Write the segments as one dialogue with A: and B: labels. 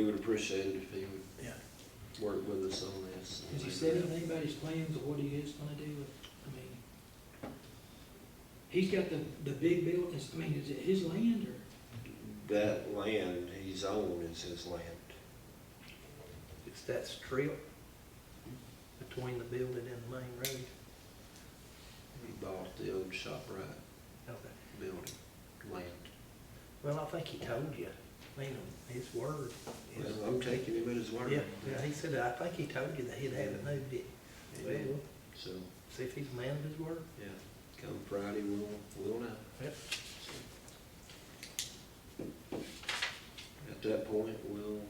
A: We would appreciate it if he
B: Yeah.
A: would work with us on this.
B: Has he said anything about his plans or what he is gonna do with, I mean, he's got the, the big buildings, I mean, is it his land or?
A: That land he's owned is his land.
C: It's that strip between the building and the main road.
A: He bought the old ShopRite
C: Okay.
A: building, land.
C: Well, I think he told you, I mean, his word. is-
A: Well, I'm taking him at his word.
C: Yeah, yeah, he said, I think he told you that he'd have it moved it.
A: Yeah.
C: Well,
A: So,
C: see if he's a man of his word.
A: yeah, come Friday, we'll, we'll know.
C: Yep.
A: So, At that point, we'll,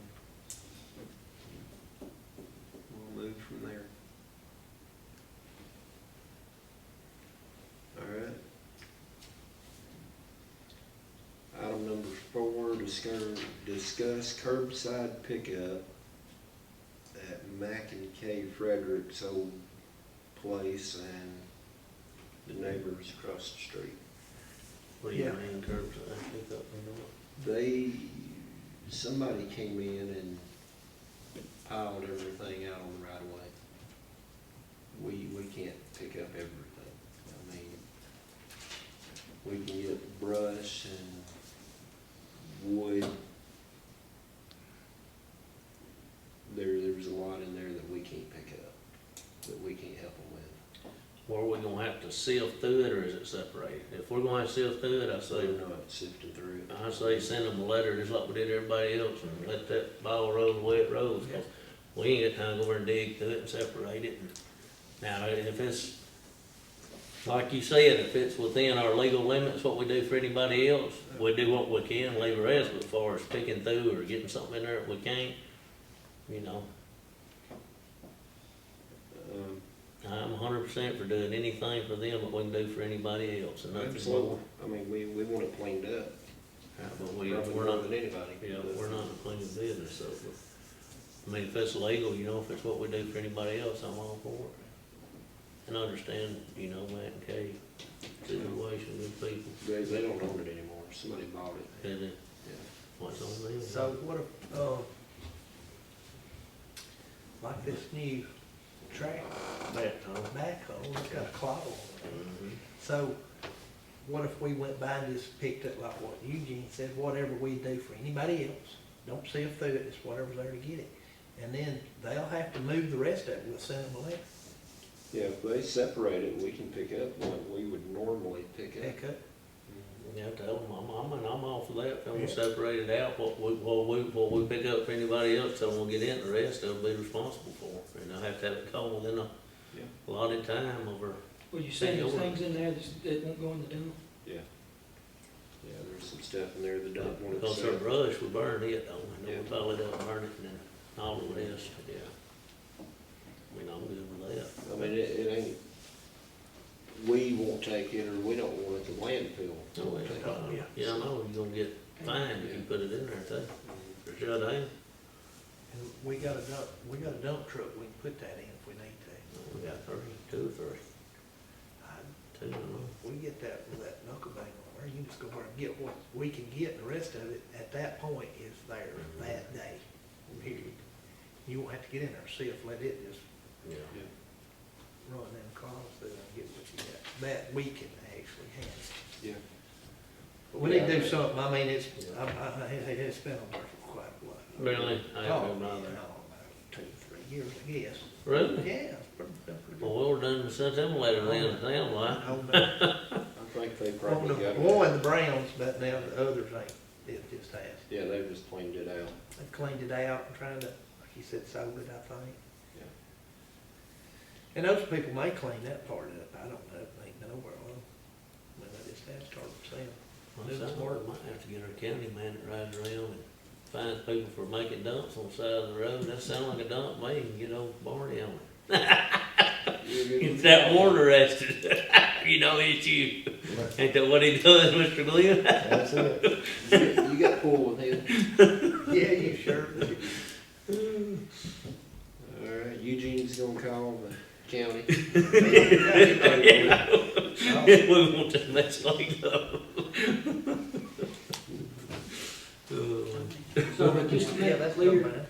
A: we'll move from there. All right. Item number four, discuss, discuss curbside pickup at Mack and K Frederick's old place and the neighbors across the street.
D: What do you
C: Yeah.
D: mean curbside pickup and all?
A: They, somebody came in and piled everything out on the right of way. We, we can't pick up everything. I mean, we can get brush and wood. There, there's a lot in there that we can't pick up, that we can't help them with.
D: Or are we gonna have to sift through it, or is it separated? If we're gonna have to sift through it, I say,
A: They're not sifting through it.
D: I say send them a letter, just like we did everybody else, and let that ball roll the way it rolls. 'cause We ain't got time to go over and dig through it and separate it. and- Now, if it's, like you said, if it's within our legal limits, what we do for anybody else, we do what we can, leave the rest, but as far as picking through or getting something in there that we can't, you know,
A: Um,
D: I'm hundred percent for doing anything for them that we can do for anybody else, and nothing
A: Absolutely.
D: more.
A: I mean, we, we want it cleaned up,
D: Uh, But we,
A: probably
D: we're
A: more
D: not,
A: than anybody.
D: yeah, we're not a clean business, so, but, I mean, if it's legal, you know, if it's what we do for anybody else, I'm all for it. And I understand, you know, Matt and Kay, situation, good people,
A: They, they don't own it anymore, somebody bought it.
D: and it-
A: Yeah.
D: what's on them.
C: So what if, uh, like this new track
D: Back home.
C: backhoe, it's got a claw on it.
D: Mhm.
C: So what if we went by and just picked up like what Eugene said, whatever we do for anybody else, don't see if through it, it's whatever's there to get it. And then they'll have to move the rest of it, we'll send them a letter,
A: Yeah, if they separate it, we can pick up what we would normally pick up.
C: pick up.
D: Yeah, tell them, I'm, I'm, and I'm all for that, tell them
C: Yeah.
D: separate it out, what we, what we, what we pick up for anybody else, tell them we'll get in, the rest they'll be responsible for. And they'll have to have it called within a
A: Yeah.
D: allotted time over,
B: Well, you saying
D: Yeah,
B: there's
D: we're-
B: things in there that's- that won't go in the dump?
A: Yeah. Yeah, there's some stuff in there that don't want to
D: because our
A: sell.
D: brush, we burn it, don't we,
A: Yeah.
D: and we pile it up, and burn it, and then all the rest, yeah. I mean, I'm good with that.
A: I mean, it, it ain't, we won't take it, or we don't want it to landfill. to
D: Oh,
A: take
D: yeah,
A: it.
D: uh,
C: yeah.
D: Yeah, I know, you're gonna get fined if you put it in there, too, for sure, they,
C: And we got a dump, we got a dump truck, we can put that in if we need to.
D: we got three, two or three,
C: I-
D: two, I know.
C: We get that with that knuckle bang on there, you just go over and get what we can get, and the rest of it at that point is there that day, period. You won't have to get in there, see if let it just
D: yeah.
A: Yeah.
C: run them calls through and get what you got. That we can actually handle.
A: Yeah.
C: But we need to do something, I mean, it's, I, I, it- it's been on there for quite a while.
D: Really? I
C: Oh,
D: haven't been
C: yeah,
D: by there.
C: no, about two, three years, I guess.
D: Really?
C: Yeah, it's pretty, pretty good.
D: Well, we're done, sent them a letter then, it sound like.
C: On the,
A: I think they
C: on
A: probably
C: the,
A: got it.
C: one, the browns, but now the others ain't, it just has.
A: Yeah, they just cleaned it out.
C: They've cleaned it out and trying to, like you said, sold it, I think.
A: Yeah.
C: And those people may clean that part up, I don't know, they ain't nowhere, well, when they just have started selling.
D: Well, it sounds like we might have to get our county man that rides around and finds people for making dumps on the side of the road, that sound like a dump, man, you can get old Barney on it.
A: You're good
D: Get
A: with
D: that warden arrested, you know, it's you, ain't that what he does, Mr. Glenn?
E: That's it.
A: You you got cool with him.
C: Yeah, you sure? do.
A: All right, Eugene's gonna call the county.
D: We want to mess like that. Oh,
B: So, but just,
C: Yeah, that's
B: clear.
C: no bad.